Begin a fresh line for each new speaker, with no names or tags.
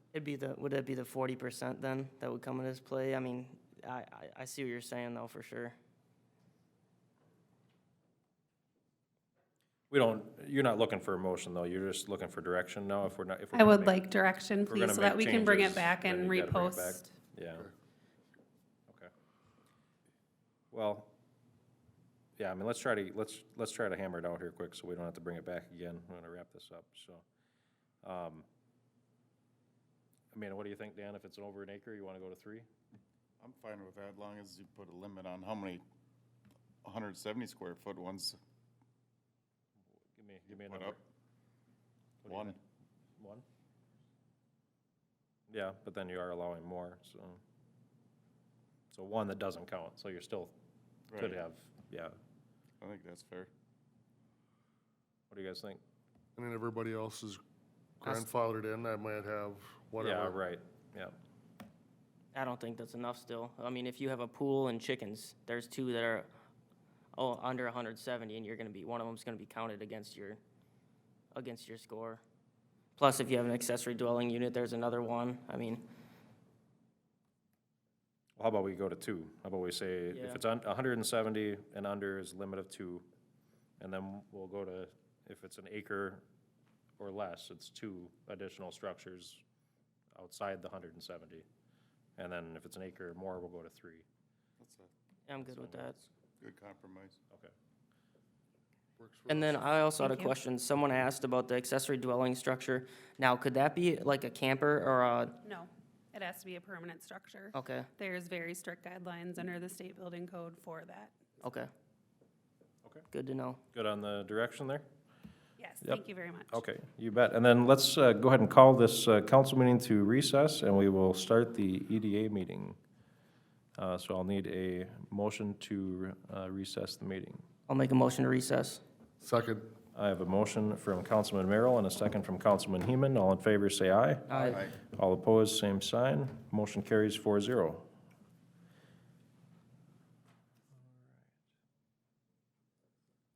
It'd be the, would it be the forty percent then that would come into this play? I mean, I, I, I see what you're saying though, for sure.
We don't, you're not looking for a motion, though, you're just looking for direction now, if we're not, if we're.
I
gonna
would
make-
like direction,
if we're gonna
please, so that
make
we can bring
changes,
it back
then
and
you gotta bring it back.
repost.
Yeah. Okay. Well, yeah, I mean, let's try to, let's, let's try to hammer it out here quick, so we don't have to bring it back again, we're gonna wrap this up, so. um, I mean, what do you think, Dan, if it's over an acre, you wanna go to three?
I'm fine with that, as long as you put a limit on how many 170 square foot ones
Give me, give me a
put
number.
up.
What do you
One,
think? One? Yeah, but then you are allowing more, so. So one that doesn't count, so you're still, could
Right.
have, yeah.
I think that's fair.
What do you guys think?
And then everybody else is grandfathered in, I might have
Yeah,
whatever.
right, yeah.
I don't think that's enough still. I mean, if you have a pool and chickens, there's two that are, oh, under hundred seventy, and you're gonna be, one of them's gonna be counted against your, against your score. Plus, if you have an accessory dwelling unit, there's another one. I mean,
Well, How about we go to two? How about we say,
Yeah.
if it's on, hundred and seventy and under is limit of two, and then we'll go to, if it's an acre or less, it's two additional structures outside the hundred and seventy. And then if it's an acre or more, we'll go to three.
That's a
I'm good with that.
good compromise.
Okay.
And then I also had a
Thank you.
question. Someone asked about the accessory dwelling structure. Now, could that be like a camper or a,
No, it has to be a permanent structure.
okay,
There's very strict guidelines under the state building code for that.
okay.
Okay.
Good to know.
Good on the direction there?
Yes,
Yep.
thank you very much.
Okay, you bet. And then let's uh, go ahead and call this uh, council meeting to recess, and we will start the EDA meeting. Uh, So I'll need a motion to uh, recess the meeting.
I'll make a motion to recess.
Second,
I have a motion from Councilman Merrill and a second from Councilman Heman. All in favor, say aye.
Aye.
Aye.
All opposed, same sign. Motion carries 4-0.